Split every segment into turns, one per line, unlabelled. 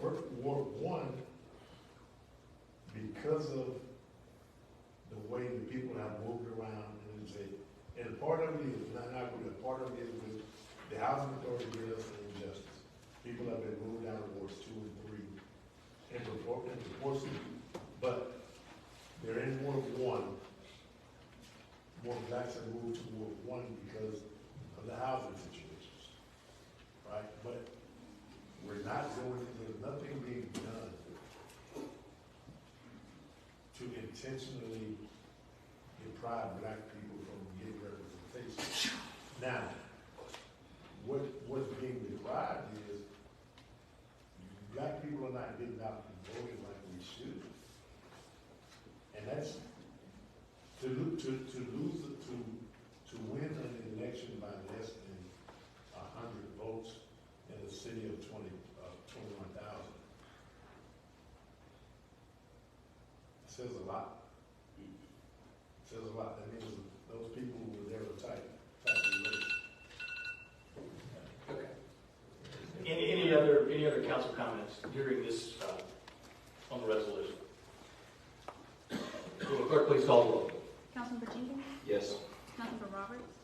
Ward One, because of the way the people have moved around, and it's a, and part of it is not, not with it, part of it is with the housing authority did us an injustice. People have been moved out of wards two and three, and report, and reports, but they're in Ward One. More blacks have moved to Ward One because of the housing situations, right? But we're not doing, there's nothing being done to intentionally deprive black people from getting representation. Now, what, what's being deprived is, black people are not getting out and voting like we should. And that's, to lo, to, to lose, to, to win an election by less than a hundred votes in a city of twenty, uh, twenty-one thousand. Says a lot. Says a lot, that means those people who were there were tight, tightly laced.
Okay. Any, any other, any other council comments during this, uh, on the resolution? Will the clerk please call the roll?
Councilmember Jenkins,
Yes.
Councilmember Roberts,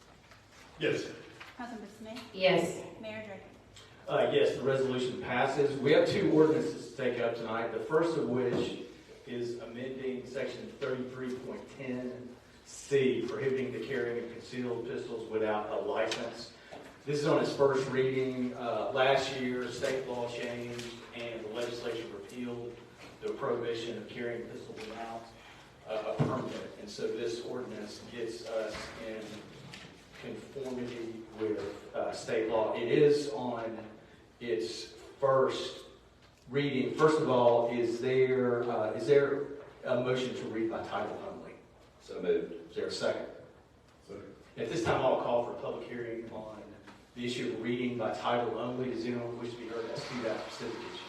Yes.
Councilmember Smith,
Yes.
Mayor Draper.
Uh, yes, the resolution passes. We have two ordinances to take up tonight, the first of which is amending section thirty-three point ten C, prohibiting the carrying of concealed pistols without a license. This is on its first reading, uh, last year, state law changed, and the legislature repealed the prohibition of carrying pistols without uh, a permit. And so this ordinance gets us in conformity with, uh, state law. It is on its first reading. First of all, is there, uh, is there a motion to read by title only?
So moved.
Is there a second?
So,
At this time, I'll call for a public hearing on the issue of reading by title only. Does anyone wish to be heard as to that specific issue?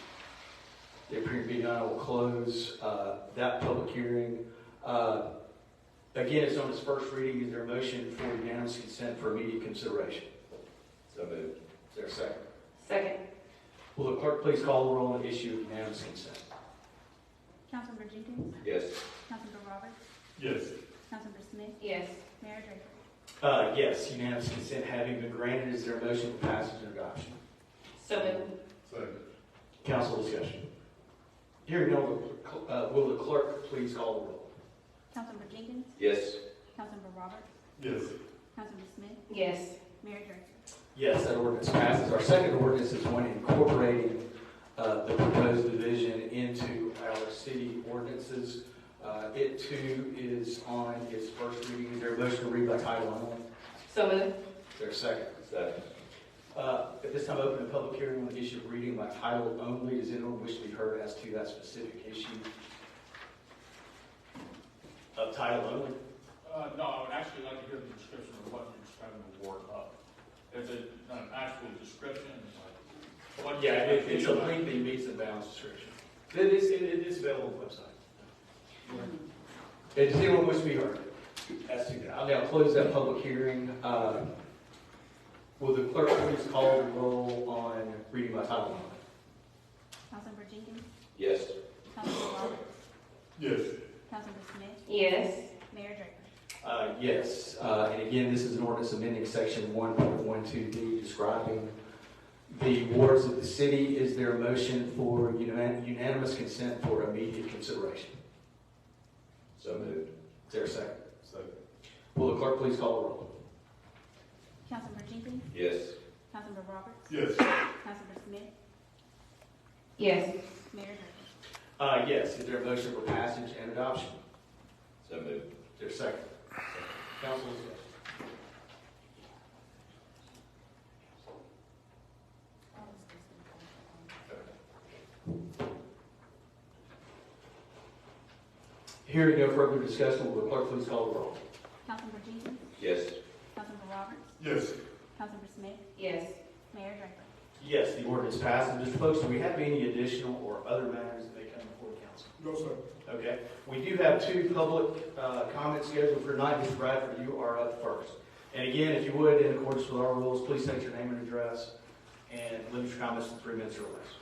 There appearing to be none, I will close uh, that public hearing. Uh, Again, it's on its first reading. Is there a motion for unanimous consent for immediate consideration?
So moved.
Is there a second?
Second.
Will the clerk please call the roll on the issue of unanimous consent?
Councilmember Jenkins,
Yes.
Councilmember Roberts,
yes.
Councilmember Smith,
Yes.
Mayor Draper.
Uh, Yes, unanimous consent having been granted, is there a motion for passage and adoption?
So moved.
Second.
Council discussion. Hearing no, uh, will the clerk please call the roll?
Councilmember Jenkins,
Yes.
Councilmember Roberts,
Yes.
Councilmember Smith,
Yes.
Mayor Draper.
Yes, that ordinance passes. Our second ordinance is one incorporating uh, the proposed division into our city ordinances. Uh, It too is on its first reading. Is there a motion to read by title only?
So moved.
Is there a second?
Second.
Uh, At this time, I open a public hearing on the issue of reading by title only. Does anyone wish to be heard as to that specific issue? Of title only?
Uh, no, I would actually like to hear the description of what you're describing the ward of. If it's not an actual description, it's like. what-
Yeah, it- it's a lengthy meets and bounds description. It is, it is available on the website. Does anyone wish to be heard? As to that, I'll now close that public hearing. Uh, Will the clerk please call the roll on reading by title only?
Councilmember Jenkins,
Yes.
Councilmember Roberts,
Yes.
Councilmember Smith,
Yes.
Mayor Draper.
Uh, Yes, Uh, and again, this is an ordinance amending section 1.12D describing the wards of the city. Is there a motion for unan- unanimous consent for immediate consideration?
So moved.
Is there a second?
Second.
Will the clerk please call the roll?
Councilmember Jenkins,
Yes.
Councilmember Roberts,
Yes.
Councilmember Smith,
Yes.
Mayor Draper.
Uh, Yes, is there a motion for passage and adoption?
So moved.
Is there a second? Council discussion. Hearing no further discussion, will the clerk please call the roll?
Councilmember Jenkins,
Yes.
Councilmember Roberts,
Yes.
Councilmember Smith,
Yes.
Mayor Draper.
Yes, the ordinance passed. And just folks, do we have any additional or other matters that may come before council?
No, sir.
Okay, we do have two public uh, comments scheduled for tonight. Mr. Bradford, you are up first. And again, if you would, in accordance with our rules, please state your name and address and limit your comments to three minutes or less.